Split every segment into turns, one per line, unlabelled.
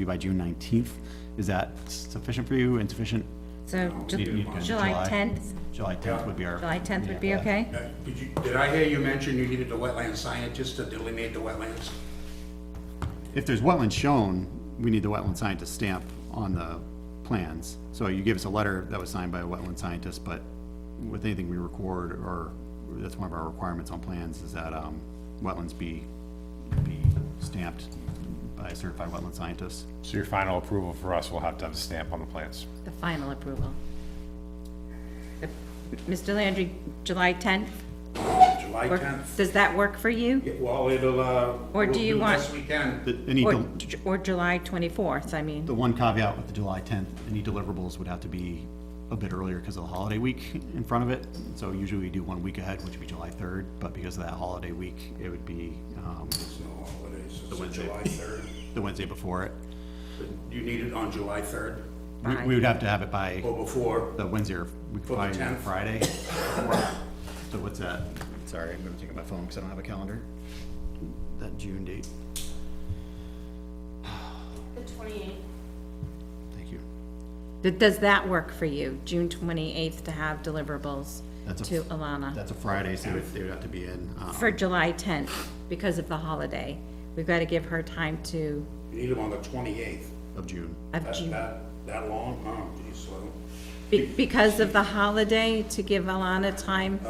be by June nineteenth. Is that sufficient for you, insufficient?
So Ju-
You- you can-
July 10th,
July tenth would be our.
July 10th would be okay?
Uh, Did you, did I hear you mention you needed the wetland scientist to delineate the wetlands?
If there's wetlands shown, we need the wetland scientist stamp on the plans. So you gave us a letter that was signed by a wetland scientist, but with anything we record, or, that's one of our requirements on plans, is that, um, wetlands be, be stamped by a certified wetland scientist.
So your final approval for us will have to have a stamp on the plans.
The final approval. The- Mr. Landry, July 10th?
July
Or-
10th?
Does that work for you?
Yeah, Well, it'll, uh.
Or do
we'll
you want-
best we can.
The, any,
Or,
del-
Ju- or July 24th, I mean?
the one caveat with the July tenth, any deliverables would have to be a bit earlier because of the holiday week in front of it. So usually we do one week ahead, which would be July third, but because of that holiday week, it would be, um,
It's no holidays, it's
Wednesday.
July 3rd.
the Wednesday before it.
You need it on July 3rd
We, we would have to have it by
or before.
the Wednesday, or we could
For the
probably do it
10th.
Friday. So what's that? Sorry, I'm gonna take out my phone because I don't have a calendar. That June date,
The twenty-eighth.
thank you.
Th- Does that work for you, June 28th to have deliverables
That's a-
to Alana?
That's a Friday, so they would have to be in, um,
For July 10th, because of the holiday. We've got to give her time to,
You need them on the 28th.
of June.
of
That,
June.
that, that long? Oh, geez, well,
Be- Because of the holiday, to give Alana time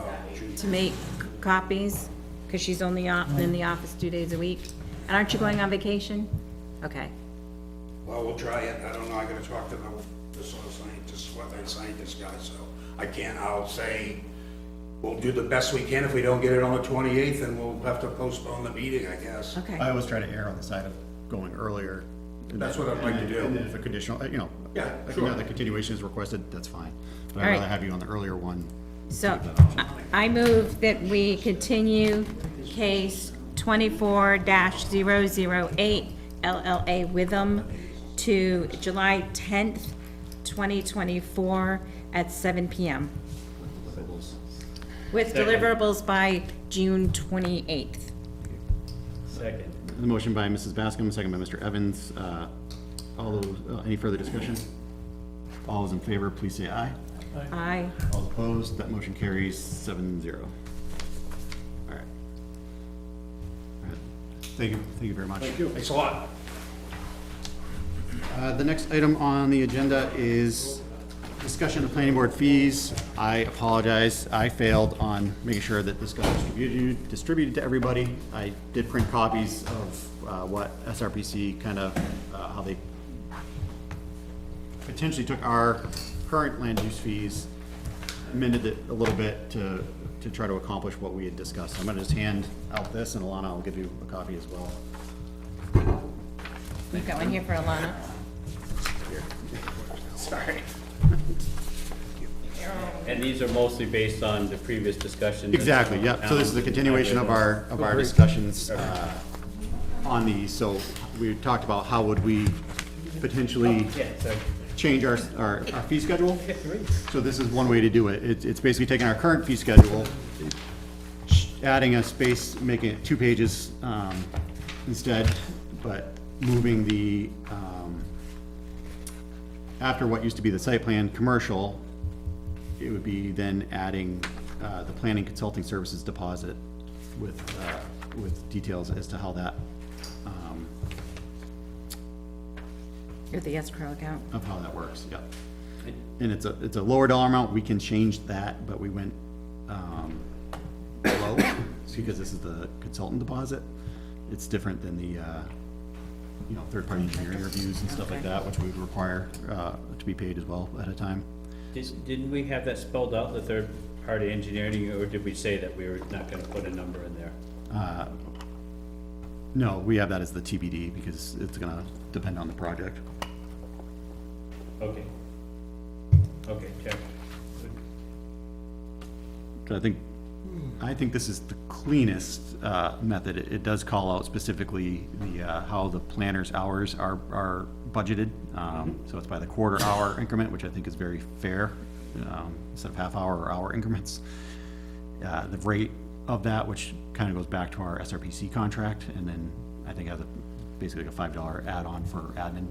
to make copies, because she's only off, in the office two days a week. And aren't you going on vacation? Okay,
well, we'll try it. I don't know. I gotta talk to the, the soil scientist, wetland scientist guy, so I can't, I'll say we'll do the best we can. If we don't get it on the 28th, then we'll have to postpone the meeting, I guess.
I
okay.
always try to err on the side of going earlier. and
That's
then-
what I'd like to
and then-
do.
And then if a conditional, uh, you know.
Yeah,
If
sure.
another continuation is requested, that's fine. But I'd
Alright.
rather have you on the earlier one.
So, I I move that we continue case twenty-four 8 LLA Witham to July tenth, twenty twenty-four at seven PM. With deliverables by June twenty-eighth.
The motion by Mrs. Bascom, second by Mr. Evans. Uh, All those, uh, any further discussion? All those in favor, please say aye.
Aye.
All opposed, that motion carries seven zero. All right. All right. Thank you, thank you very much.
Thank you. Thanks a lot.
Uh, The next item on the agenda is discussion of planning board fees. I apologize, I failed on making sure that this got distributed, distributed to everybody. I did print copies of uh, what SRPC kind of, uh, how they potentially took our current land use fees, amended it a little bit to, to try to accomplish what we had discussed. I'm gonna just hand out this, and Alana will give you a copy as well.
We've got one here for Alana.
Sorry.
And these are mostly based on the previous discussions. Um,
Exactly, yeah, so this is a continuation of our, of our discussions uh, on these, so we talked about how would we potentially change our, our our fee schedule? So this is one way to do it, it's, it's basically taking our current fee schedule, adding a space, making it two pages um, instead, but moving the, um, after what used to be the site plan, commercial, it would be then adding uh, the planning consulting services deposit with, uh, with details as to how that, um,
With the escrow account.
of how that works, yep. And it's a, it's a lower dollar amount, we can change that, but we went um, below, it's because this is the consultant deposit. It's different than the, uh, you know, third-party engineering reviews and stuff like that, which we would require uh, to be paid as well at a time.
Did- Didn't we have that spelled out, the third-party engineering, or did we say that we were not gonna put a number in there?
No, we have that as the TBD because it's gonna depend on the project.
Okay. Okay, check.
But I think, I think this is the cleanest uh, method. It it does call out specifically the, uh, how the planner's hours are, are budgeted. Um, So it's by the quarter hour increment, which I think is very fair, um, instead of half hour or hour increments. Uh, The rate of that, which kind of goes back to our SRPC contract, and then I think has a, basically a five dollar add-on for admin